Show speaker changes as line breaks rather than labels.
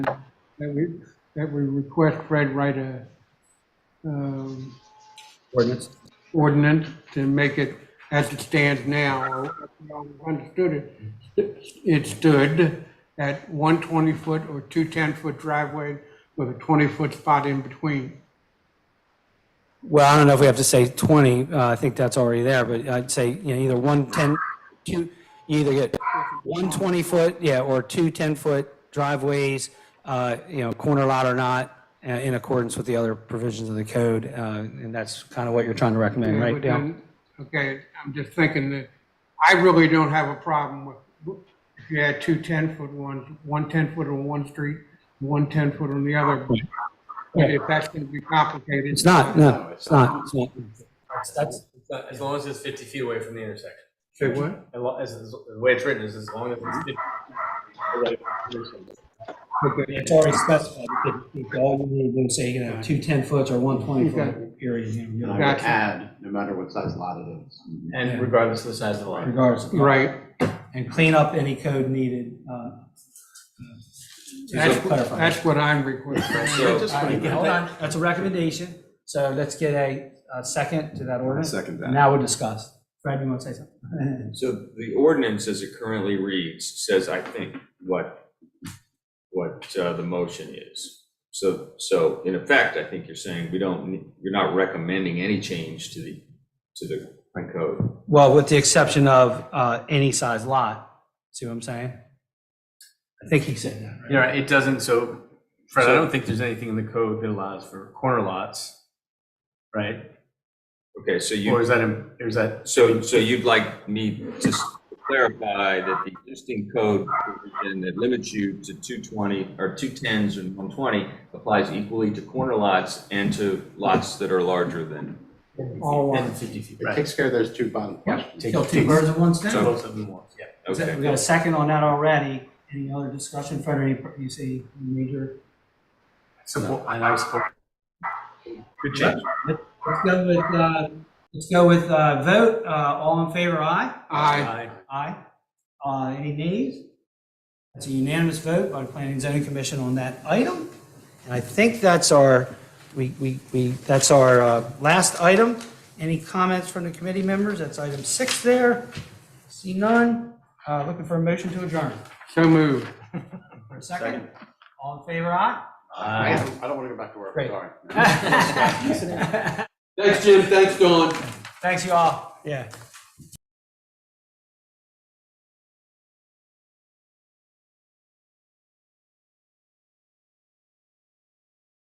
that we, that we request Fred write a um,
ordinance.
ordinance to make it as it stands now. I Understood it, it stood at one 20-foot or two 10-foot driveway with a 20-foot spot in between.
Well, I don't know if we have to say 20, uh, I think that's already there, but I'd say, you know, either one 10, two, you either get one 20-foot, yeah, or two 10-foot driveways, uh, you know, corner lot or not, uh, in accordance with the other provisions of the code, uh, and that's kind of what you're trying to recommend, right,
But
Dale?
then- Okay, I'm just thinking that, I really don't have a problem with, if you had two 10-foot ones, one 10-foot on one street, one 10-foot on the other. But if that's going to be complicated.
It's not, no, it's not, it's not. That's,
It's not- As long as it's fifty feet away from the intersection.
Say what?
As lo- as- as- the way it's written is as long as it's fifty. away from the intersection.
it's already specified, all you need to say, you know, two 10-foots or one 20-foot,
And I
period,
would
Gotcha.
add, no matter what size lot it is.
And regardless of the size of the lot.
regardless.
Right.
and clean up any code needed uh,
That's,
to clarify.
that's what I'm requesting.
So-
All right, Hold on, that's a recommendation, so let's get a a second to that ordinance.
Second that.
Now we'll discuss. Fred, you want to say something?
So the ordinance as it currently reads says, I think, what, what uh, the motion is. So, so in effect, I think you're saying we don't, need- you're not recommending any change to the, to the current code.
Well, with the exception of uh, any size lot, see what I'm saying? I think he said that, right?
You know, it doesn't, so Fred, I don't think there's anything in the code that allows for corner lots, right?
Okay, so
Or
you,
is that, in- or is that,
so, so you'd like me to s- clarify that the existing code provision that limits you to 220, or 210s and 120 applies equally to corner lots and to lots that are larger than
All
and
ones.
fifty feet,
It
right?
takes care of those two bottom questions.
Kill two birds with one
So
stone.
Both of them once, yeah.
Is that-
Okay.
We got a second on that already. Any other discussion, Fred, or any, you see major?
Support, and I support. Good change.
Let's go with, uh, let's go with uh, vote, Uh, all in favor, aye?
I,
Aye. Uh, Any nays? That's a unanimous vote by the Planning and Zoning Commission on that item. And I think that's our, we, we, we, that's our uh, last item. Any comments from the committee members? That's item six there. See none. Uh, Looking for a motion to adjourn.
so moved.
For a second? All in favor, aye?
I
Aye.
don't want to go back to work,
Great.
sorry.
Thanks, Jim. Thanks, Dawn.
Thanks, you all. Yeah.